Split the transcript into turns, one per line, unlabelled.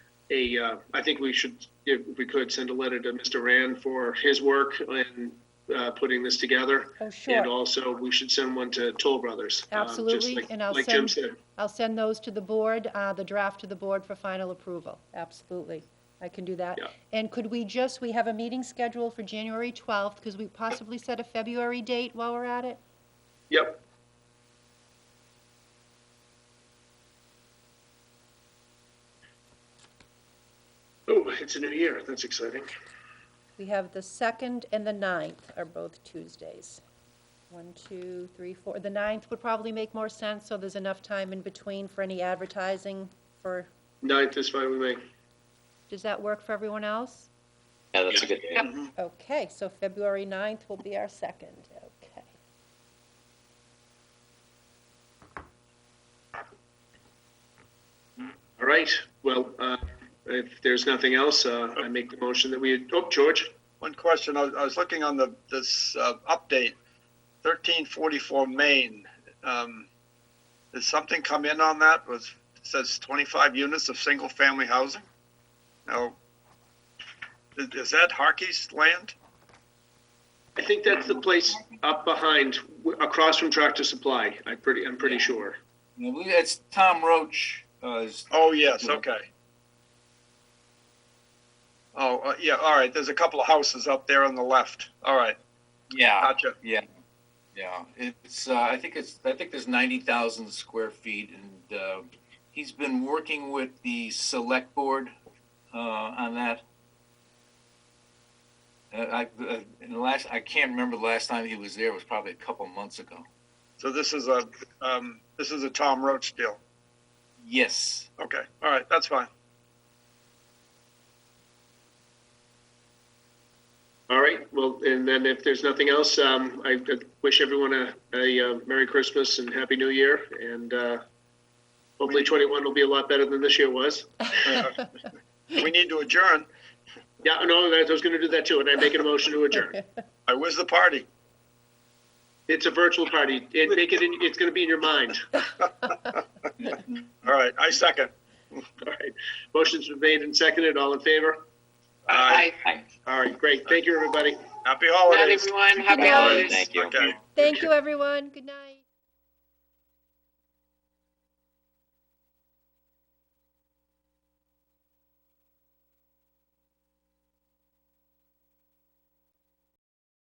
a, uh, I think we should, if we could, send a letter to Mr. Rand for his work in uh, putting this together.
Oh,
And
sure.
also, we should send one to Toll Brothers. um, just
Absolutely,
like-
and I'll
Like Jim
send-
said,
I'll send those to the board, uh, the draft to the board for final approval. Absolutely. I can do that.
Yeah.
And could we just, we have a meeting scheduled for January 12th, because we possibly set a February date while we're at it?
yep, oh, it's a new year, that's exciting.
We have the 2nd and the 9th are both Tuesdays. One, two, three, four. The 9th would probably make more sense, so there's enough time in between for any advertising for,
Ninth is fine with me.
does that work for everyone else?
Yeah, that's a good day.
Mhm.
Okay, so February 9th will be our second, okay.
All right, well, uh, if there's nothing else, uh, I make the motion that we, oh, George?
One question, I was, I was looking on the, this, uh, update, thirteen forty-four Main. Um, did something come in on that? Was, it says twenty-five units of single-family housing? No. Is, is that Harkey's land?
I think that's the place up behind, w- across from Tractor Supply, I pretty, I'm pretty sure.
I believe that's Tom Roach. Uh, is-
Oh, yes, okay. Oh, uh, yeah, all right, there's a couple of houses up there on the left. All right,
yeah,
gotcha.
yeah. It's uh, I think it's I think there's ninety thousand square feet, and uh, he's been working with the select board uh, on that. Uh, I uh, in the last I can't remember the last time he was there. It was probably a couple months ago.
So this is a, um, this is a Tom Roach deal.
Yes.
Okay, all right, that's fine.
All right, well, and then if there's nothing else, um, I could wish everyone a, a uh, Merry Christmas and Happy New Year, and, uh, hopefully twenty-one will be a lot better than this year was.
Uh, We need to adjourn.
Yeah, no, that- I was gonna do that too, and I make a motion to adjourn.
I was the party.
It's a virtual party, it, make it, in it's gonna be in your mind.
All right, I second.
All right, motion's been made and seconded, all in favor?
Aye.
Hi.
All right, great, thank you, everybody.
Happy
Good night,
holidays.
everyone. Happy
night.
holidays.
Thank you.
Okay.
Thank you, everyone, good night.